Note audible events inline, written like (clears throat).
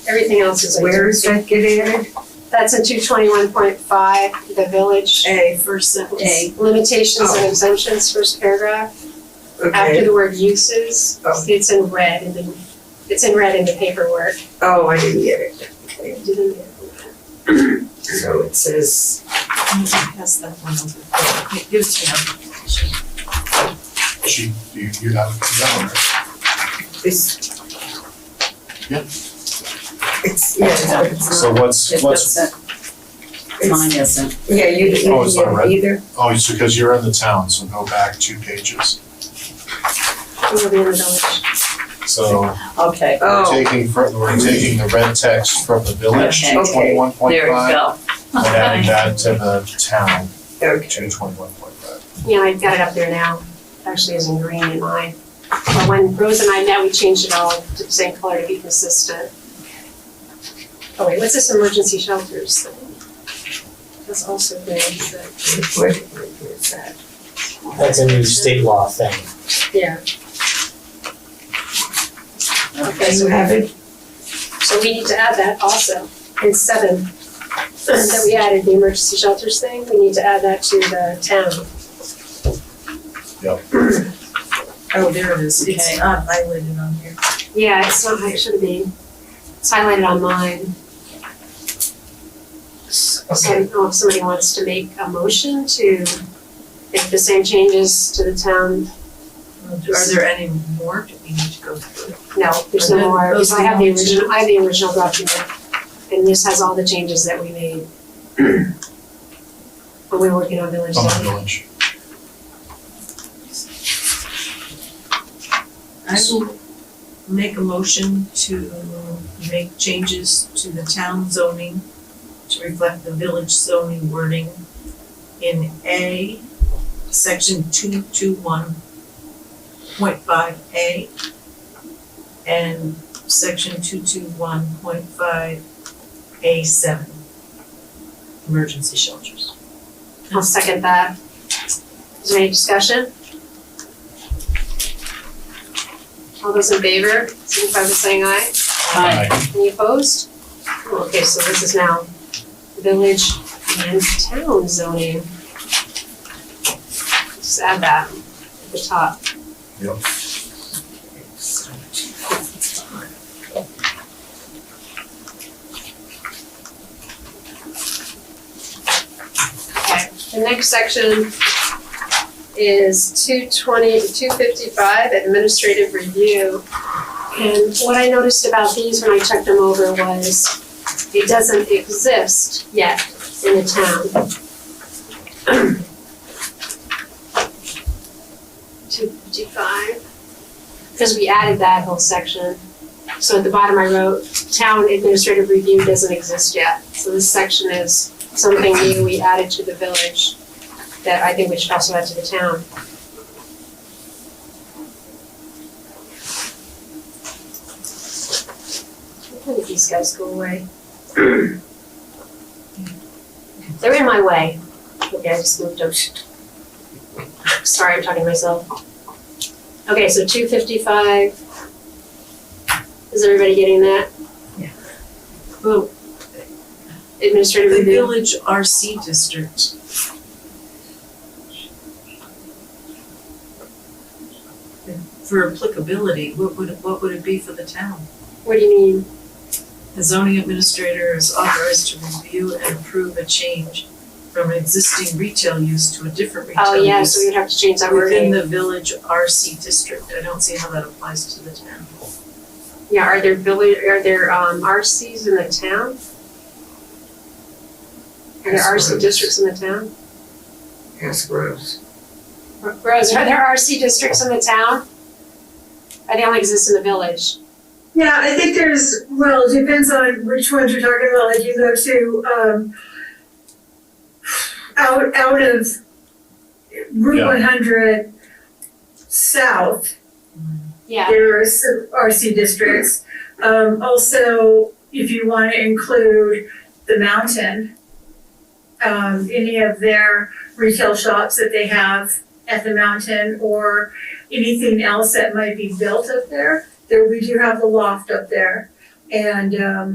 Everything else is Where where? is that get added? That's in two twenty-one point five, the village. A, first sentence. A. Limitations and Oh. exemptions, first paragraph, after Okay, the word uses, Oh. it's in red in the, it's in red in the paperwork. oh, I didn't get it. Okay, Didn't it? so it says, Pass that one over. It gives you an She, you, you have it down there. it's. Yeah. It's, yeah, it's- but it's So Uh, not, what's, what's, Mine it's, isn't. yeah, you didn't Oh, it's not get red. it either? oh, it's because you're in the town, so go back two pages. It'll be in the village. So Okay, we're Oh, taking, fr- we're taking the red text from the village, Okay. Okay. twenty-one point there you five, go. and adding that to the town, okay. to twenty-one point five. Yeah, I got it up there now, actually is in green in mine. But when Rose and I met, we changed it all to the same color to be consistent. Oh wait, what's this emergency shelters thing? That's also green, is it? Where is that? That's a new state law thing. Yeah, Do okay, you so, have it? so we need to add that also in seven. That we added the emergency shelters thing, we need to add that to the town. Oh, there it is. It's not highlighted on here. Yeah, it's not, it should have been, it's highlighted on mine. So I Okay, don't know if somebody wants to make a motion to make the same changes to the town. Are there any more that we need to go through? No, there's no Okay, more, those because I have the are the- original, I have the original document. And this has all the changes that we made. When we were working on village From the zoning. village. I will make a motion to make changes to the town zoning to reflect the village zoning wording in A, section two two one point five A and section two two one point five A seven. Emergency shelters. I'll second that. Is there any discussion? All those in favor, signify by saying aye. Aye. Any opposed? Okay, so this is now village and town zoning. Just add that at the top. Okay, the next section is two twenty to two fifty-five, administrative review. And what I noticed about these when I checked them over was it doesn't exist yet in the town. (clears throat) Two fifty-five, because we added that whole section. So at the bottom I wrote, town administrative review doesn't exist yet. So this section is something new we added to the village that I think we should also add to the town. When did these guys go (clears throat) away? They're in my way. Okay, I just moved them. Sorry, I'm talking to myself. Okay, so two fifty-five. Is everybody getting that? Well, Administrative the review? village RC district. For applicability, what would, what would it be for the town? What do you mean? The zoning administrator is authorized to review and approve a change from an existing retail use to a different Oh, retail yeah, so we use would have to change that within wording. the village RC district. I don't see how that applies to the town. Yeah, are there village, are there, um, RCs in the town? Are there Yes, there RC is. districts in the town? ask Rose. R- Rose, are there RC districts in the town? Or they only exist in the village? Yeah, I think there's, well, it depends on which ones you're talking about, like you go to, um, out, out of Route Yeah. one hundred south, Yeah, there are some RC districts. Um, also, if you wanna include the mountain, um, any of their retail shops that they have at the mountain or anything else that might be built up there, there, we do have the loft up there. And, um,